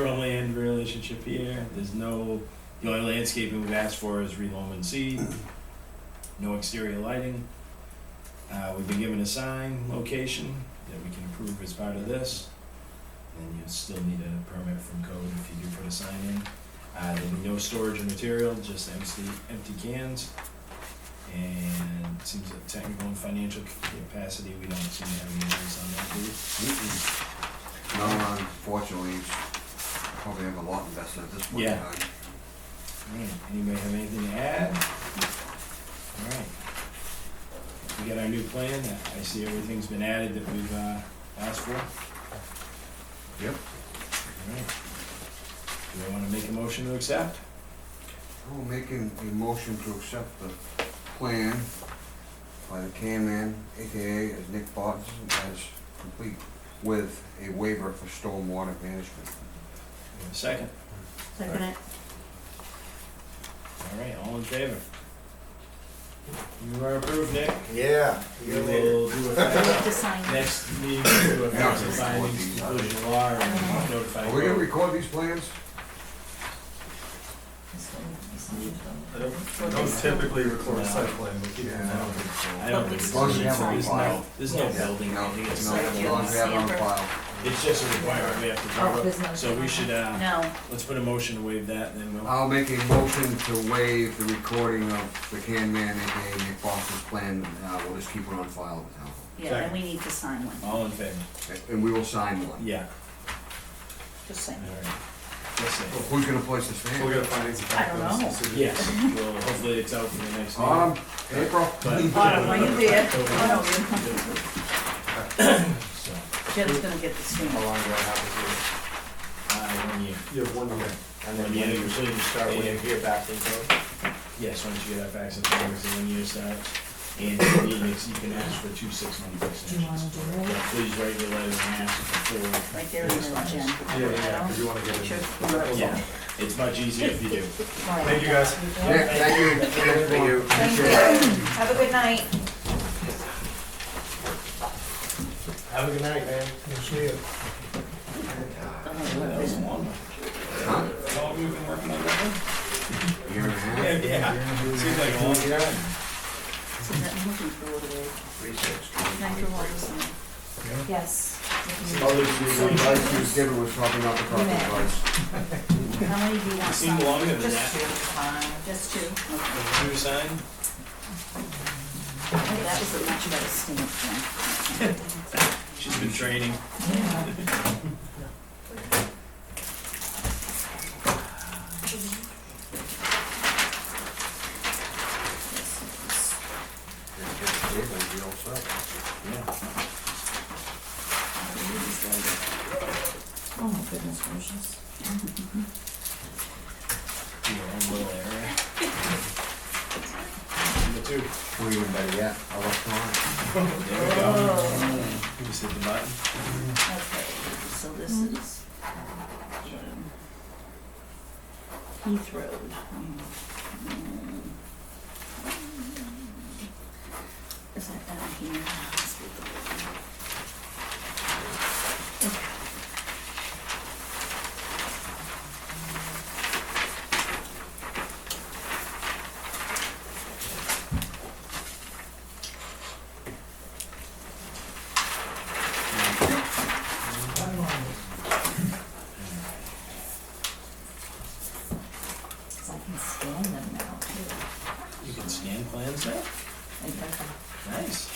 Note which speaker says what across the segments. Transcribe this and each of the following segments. Speaker 1: shoreland relationship here. There's no, the only landscaping we've asked for is reloam and seed. No exterior lighting. Uh, we've been given a sign location that we can approve as part of this. And you still need a permit from code if you do put a sign in. Uh, there'll be no storage of material, just empty, empty cans. And it seems that technical and financial capacity, we don't seem to have any limits on that, do we?
Speaker 2: No, unfortunately, it's probably have a lot invested at this point in
Speaker 1: Yeah.
Speaker 2: time.
Speaker 1: Man, anybody have anything to add? Alright. We got our new plan, I see everything's been added that we've, uh, asked for.
Speaker 2: Yep.
Speaker 1: Alright. Do I wanna make a motion to accept?
Speaker 2: We'll make a a motion to accept the plan by the K-Man, AKA as Nick Botts, as complete with a waiver for stormwater management.
Speaker 1: We have a Second,
Speaker 3: Second it.
Speaker 1: alright, all in favor? You are approved, Nick.
Speaker 4: Yeah.
Speaker 1: We will do a,
Speaker 3: We
Speaker 1: fi-
Speaker 3: have to sign it.
Speaker 1: next meeting, we'll do a facts and findings, conclusion of law, and notify.
Speaker 2: Are we gonna record these plans?
Speaker 3: This one, this one.
Speaker 4: I don't- I don't typically record site plan, we keep it
Speaker 2: Yeah, I don't
Speaker 4: down.
Speaker 2: think so.
Speaker 1: I don't think
Speaker 3: As
Speaker 1: it's,
Speaker 2: long as you have it on
Speaker 1: there's no,
Speaker 2: file.
Speaker 1: there's no
Speaker 3: Yeah.
Speaker 1: building, I
Speaker 2: No,
Speaker 1: think it's
Speaker 2: no,
Speaker 1: like,
Speaker 2: as long as we have it on file.
Speaker 1: it's just a requirement we have to do.
Speaker 3: Oh, there's no.
Speaker 1: So we should, uh,
Speaker 3: No,
Speaker 1: Let's put a motion to waive that, and then we'll,
Speaker 2: I'll make a motion to waive the recording of the K-Man, AKA Nick Botts' plan, uh, we'll just keep it on file now.
Speaker 3: yeah, then we need to sign one,
Speaker 1: all in favor?
Speaker 2: And we will sign one.
Speaker 1: Yeah,
Speaker 3: just
Speaker 1: all
Speaker 3: sign it.
Speaker 1: right. Let's see.
Speaker 2: Who's gonna place this fan?
Speaker 4: We'll get a findings of fact.
Speaker 3: I don't know.
Speaker 4: So we-
Speaker 1: Yes, well, hopefully it's out for the next meeting.
Speaker 2: Autumn, April.
Speaker 1: But-
Speaker 4: Oh,
Speaker 1: uh,
Speaker 3: Autumn, are you there? Oh,
Speaker 1: October. So,
Speaker 3: Jim's gonna get the screen.
Speaker 4: How long do I have
Speaker 1: uh, one year.
Speaker 4: to do? You have one year.
Speaker 5: And then when you
Speaker 1: usually
Speaker 5: start, when you hear back from them,
Speaker 1: Yes, once you get that fax and findings, the one year starts, and if you need it, you can ask for two six-month
Speaker 3: Do you wanna
Speaker 1: extensions.
Speaker 3: do
Speaker 1: But
Speaker 3: it?
Speaker 1: Please write your letter and ask before,
Speaker 3: Right there in the gym.
Speaker 4: Yeah, yeah, because you want to get it.
Speaker 3: Sure.
Speaker 1: yeah, it's much easier if you do.
Speaker 4: Thank you, guys.
Speaker 2: Yeah, thank you.
Speaker 5: Thank you.
Speaker 3: Thank you. Have a good night.
Speaker 5: Have a good night, man. see you.
Speaker 1: That was long. How
Speaker 2: Huh?
Speaker 1: long have you been working on that
Speaker 2: Year and a
Speaker 1: one?
Speaker 2: half.
Speaker 1: yeah. Seems like a long time.
Speaker 3: Yes.
Speaker 2: Others who would like to give it was probably not the proper
Speaker 3: Yeah.
Speaker 2: advice.
Speaker 3: How many do you want?
Speaker 1: Seemed
Speaker 3: signed?
Speaker 1: longer than
Speaker 3: Just
Speaker 1: that.
Speaker 3: two. Fine. Just two. Okay.
Speaker 1: Two sign?
Speaker 3: That was a much better stamp one.
Speaker 1: She's been training.
Speaker 3: Oh Oh my goodness gracious.
Speaker 1: in your own little area. Number two.
Speaker 2: We even better yet, I left mine.
Speaker 1: There we go.
Speaker 3: Mm-hmm.
Speaker 1: Just hit the button.
Speaker 3: Okay, so this is um, Heath Road. Mm-hmm. Is that down here? Let's get the building. So I can scan them now too.
Speaker 1: You can scan plans now.
Speaker 3: Like,
Speaker 1: Nice.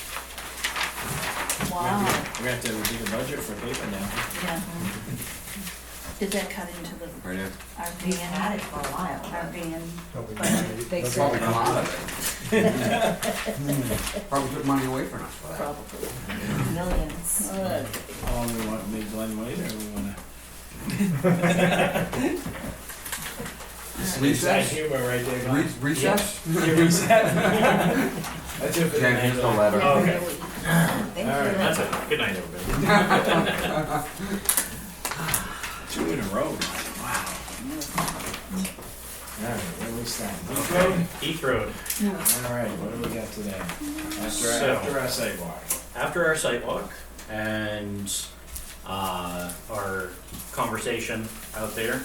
Speaker 3: Wow,
Speaker 1: We're gonna have to have a bigger budget for paper now.
Speaker 3: yeah. Mm-hmm. Did that cut into the,
Speaker 2: Right in.
Speaker 3: our van,
Speaker 6: for a while.
Speaker 3: our van?
Speaker 6: They
Speaker 2: That's
Speaker 6: said,
Speaker 2: probably come out of it. Probably took money away from us for that.
Speaker 3: Probably.
Speaker 6: millions.
Speaker 3: Uh,
Speaker 1: How long we want, make Glenn wait, or we wanna?
Speaker 2: This
Speaker 1: Inside
Speaker 2: Recess?
Speaker 1: humor right there,
Speaker 2: Re-
Speaker 1: Glenn.
Speaker 2: Recess?
Speaker 1: Yeah, reset. That's it for the
Speaker 2: Jen,
Speaker 1: night,
Speaker 2: here's the
Speaker 1: Glenn.
Speaker 2: letter.
Speaker 1: Oh, okay.
Speaker 3: really.
Speaker 6: Thank
Speaker 1: All right,
Speaker 6: you.
Speaker 5: That's it. Good night, everybody.
Speaker 1: Two in a row. Wow. Alright, where we stand? Okay.
Speaker 5: Heath Road.
Speaker 1: Alright, what do we got today? After, our-
Speaker 5: So-
Speaker 1: after our sidewalk.
Speaker 5: after our site walk and uh, our conversation out there.